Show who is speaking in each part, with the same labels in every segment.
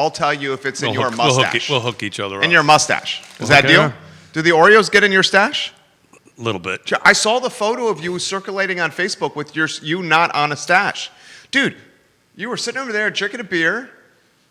Speaker 1: I'll tell you if it's in
Speaker 2: We'll
Speaker 1: your
Speaker 2: hook- we'll hook e-
Speaker 1: mustache.
Speaker 2: We'll hook each other
Speaker 1: in your
Speaker 2: up
Speaker 1: mustache. Is that
Speaker 2: Okay.
Speaker 1: deal? Do the Oreos get in your stash?
Speaker 2: a little bit.
Speaker 1: Ju- I saw the photo of you circulating on Facebook with your you not on a stash, dude. You were sitting over there drinking a beer.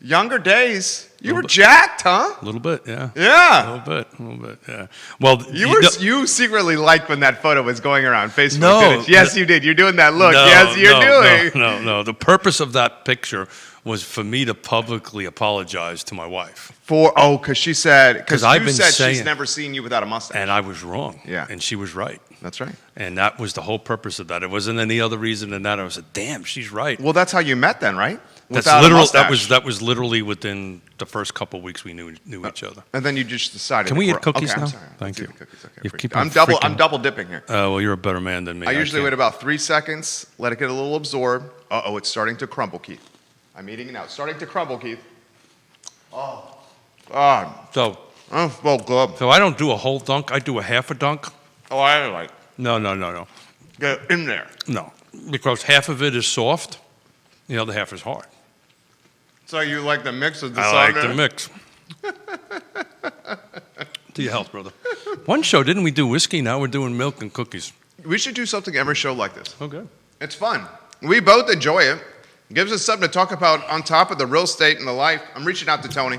Speaker 1: Younger days, you were jacked, huh?
Speaker 2: A little bit, yeah. A
Speaker 1: Yeah.
Speaker 2: little bit, a little bit, yeah. Well,
Speaker 1: You were
Speaker 2: know-
Speaker 1: you secretly liked when that photo was going around Facebook.
Speaker 2: No.
Speaker 1: didn't you? Yes, you did. You're doing that look.
Speaker 2: No,
Speaker 1: yes, you're
Speaker 2: no,
Speaker 1: doing.
Speaker 2: No, no, no. The purpose of that picture was for me to publicly apologize to my wife,
Speaker 1: For oh, because she said because
Speaker 2: 'Cause
Speaker 1: you
Speaker 2: I've been
Speaker 1: said she's
Speaker 2: saying-
Speaker 1: never seen you without a mustache.
Speaker 2: and I was wrong.
Speaker 1: Yeah.
Speaker 2: and she was right,
Speaker 1: That's right.
Speaker 2: and that was the whole purpose of that. It wasn't any other reason than that. I was like, damn, she's right.
Speaker 1: Well, that's how you met then, right?
Speaker 2: That's
Speaker 1: Without a
Speaker 2: literal.
Speaker 1: mustache.
Speaker 2: That was that was literally within the first couple weeks we knew knew each other.
Speaker 1: And then you just decided.
Speaker 2: Can we
Speaker 1: to
Speaker 2: eat
Speaker 1: grow-
Speaker 2: cookies
Speaker 1: okay,
Speaker 2: now?
Speaker 1: I'm sorry. Let's
Speaker 2: Thank
Speaker 1: do
Speaker 2: you.
Speaker 1: the cookies, okay,
Speaker 2: You
Speaker 1: freak-
Speaker 2: keep on
Speaker 1: I'm double. I'm
Speaker 2: freaking-
Speaker 1: double dipping here.
Speaker 2: Uh, well, you're a better man than me.
Speaker 1: I usually
Speaker 2: can't-
Speaker 1: wait about three seconds, let it get a little absorbed. Uh oh, it's starting to crumble, Keith. I'm eating it now. It's starting to crumble, Keith. Oh, God.
Speaker 2: So,
Speaker 1: Oh, well, good.
Speaker 2: so I don't do a whole dunk. I do a half a dunk.
Speaker 1: Oh, I like
Speaker 2: No, no, no, no,
Speaker 1: get in there.
Speaker 2: no. Because half of it is soft, the other half is hard.
Speaker 1: So you like the mix of the
Speaker 2: I
Speaker 1: cider?
Speaker 2: like the mix. to your health, brother. One show didn't we do whiskey? Now we're doing milk and cookies.
Speaker 1: We should do something every show like this.
Speaker 2: Okay.
Speaker 1: It's fun. We both enjoy it. Gives us something to talk about on top of the real estate and the life. I'm reaching out to Tony.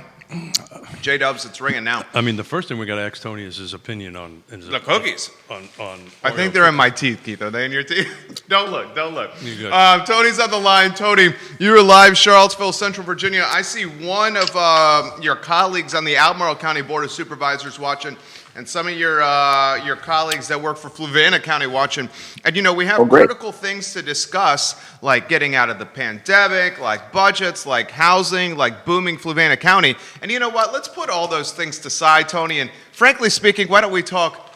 Speaker 1: J Dubs, it's ringing now.
Speaker 2: I mean, the first thing we got to ask Tony is his opinion on is
Speaker 1: The cookies.
Speaker 2: On, on
Speaker 1: I
Speaker 2: Oreo
Speaker 1: think they're in my teeth, Keith. Are they in your teeth? don't look. Don't look.
Speaker 2: You good.
Speaker 1: Um, Tony's on the line. Tony, you're live, Charlottesville, Central Virginia. I see one of um your colleagues on the Albemarle County Board of Supervisors watching, and some of your uh, your colleagues that work for Fluvanna County watching. And you know, we have
Speaker 3: Oh, great.
Speaker 1: critical things to discuss, like getting out of the pandemic, like budgets, like housing, like booming Fluvanna County. And you know what? Let's put all those things to side, Tony. And frankly speaking, why don't we talk?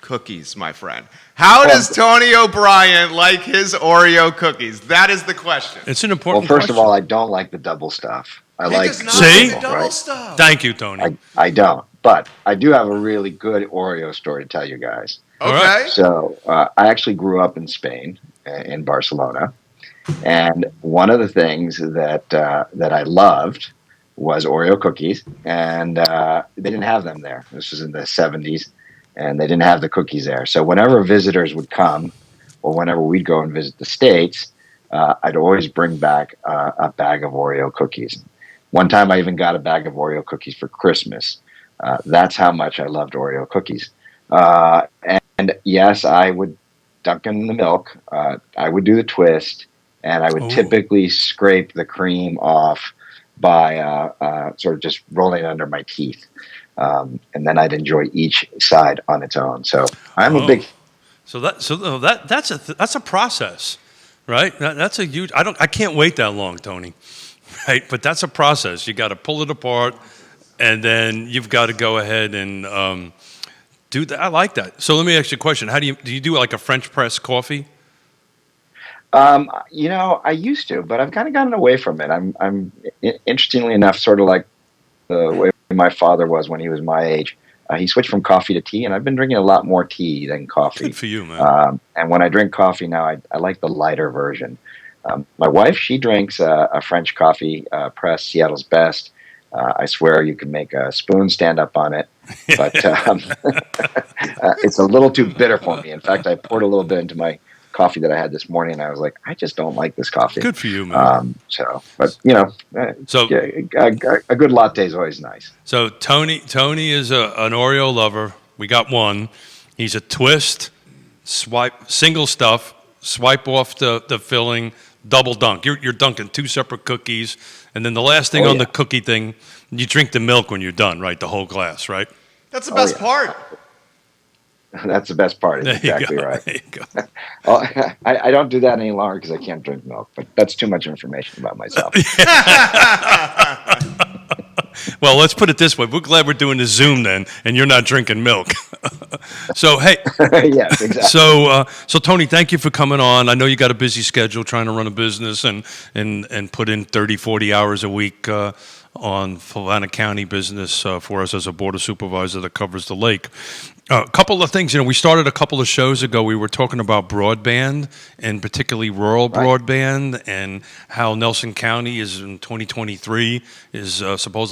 Speaker 1: cookies, my friend. How
Speaker 3: Oh.
Speaker 1: does Tony O'Brien like his Oreo cookies? That is the question.
Speaker 2: It's an
Speaker 3: Well,
Speaker 2: important.
Speaker 3: first of
Speaker 2: question.
Speaker 3: all, I don't like the double stuff. I
Speaker 1: He
Speaker 3: like
Speaker 1: does not
Speaker 3: the
Speaker 2: See?
Speaker 1: like the
Speaker 3: original,
Speaker 1: double
Speaker 3: right?
Speaker 1: stuff.
Speaker 2: thank you, Tony.
Speaker 3: I, I don't, but I do have a really good Oreo story to tell you guys.
Speaker 2: All right.
Speaker 1: Okay.
Speaker 3: So uh, I actually grew up in Spain, uh, in Barcelona, and one of the things that uh, that I loved was Oreo cookies, and uh, they didn't have them there. This was in the '70s, and they didn't have the cookies there. So whenever visitors would come, or whenever we'd go and visit the states, uh, I'd always bring back uh, a bag of Oreo cookies. One time, I even got a bag of Oreo cookies for Christmas. Uh, that's how much I loved Oreo cookies. Uh, and yes, I would dunk in the milk. Uh, I would do the twist, and I would
Speaker 2: Ooh.
Speaker 3: typically scrape the cream off by uh, uh, sort of just rolling it under my teeth. Um, and then I'd enjoy each side on its own. So I'm
Speaker 2: Oh.
Speaker 3: a big
Speaker 2: So that so uh, that that's a th- that's a process, right? That, that's a huge. I don't. I can't wait that long, Tony. Right, but that's a process. You got to pull it apart, and then you've got to go ahead and um, do that. I like that. So let me ask you a question. How do you do? You do like a French press coffee?
Speaker 3: Um, you know, I used to, but I've kind of gotten away from it. I'm, I'm i- interestingly enough, sort of like the way my father was when he was my age. Uh, he switched from coffee to tea, and I've been drinking a lot more tea than coffee.
Speaker 2: Good for you, man.
Speaker 3: Um, and when I drink coffee now, I, I like the lighter version. Um, my wife, she drinks uh, a French coffee uh, press, Seattle's best. Uh, I swear you can make a spoon stand up on it, but um, uh, it's a little too bitter for me. In fact, I poured a little bit into my coffee that I had this morning, and I was like, I just don't like this coffee.
Speaker 2: Good for you, man.
Speaker 3: Um, so, but you know, uh,
Speaker 2: so
Speaker 3: yeah, a, a- a good latte is always nice.
Speaker 2: so Tony Tony is a, an Oreo lover. We got one. He's a twist, swipe single stuff, swipe off the, the filling, double dunk. You're you're dunking two separate cookies, and then the last thing
Speaker 3: Oh,
Speaker 2: on
Speaker 3: yeah.
Speaker 2: the cookie thing, you drink the milk when you're done, right? The whole glass, right?
Speaker 1: That's the
Speaker 3: Oh,
Speaker 1: best
Speaker 3: yeah.
Speaker 1: part.
Speaker 3: That's the best part. Is exactly
Speaker 2: you go.
Speaker 3: right.
Speaker 2: There you go.
Speaker 3: Oh, I, I don't do that any longer because I can't drink milk, but that's too much information about myself.
Speaker 2: Well, let's put it this way. We're glad we're doing the Zoom then, and you're not drinking milk. so hey,
Speaker 3: yes, exactly.
Speaker 2: So, uh, so Tony, thank you for coming on. I know you got a busy schedule trying to run a business and and and put in 30, 40 hours a week uh, on Fulana County business uh, for us as a board of supervisor that covers the lake. Uh, a couple of things, you know, we started a couple of shows ago. We were talking about broadband and particularly rural
Speaker 3: Right.
Speaker 2: broadband and how Nelson County is in 2023 is uh, supposedly.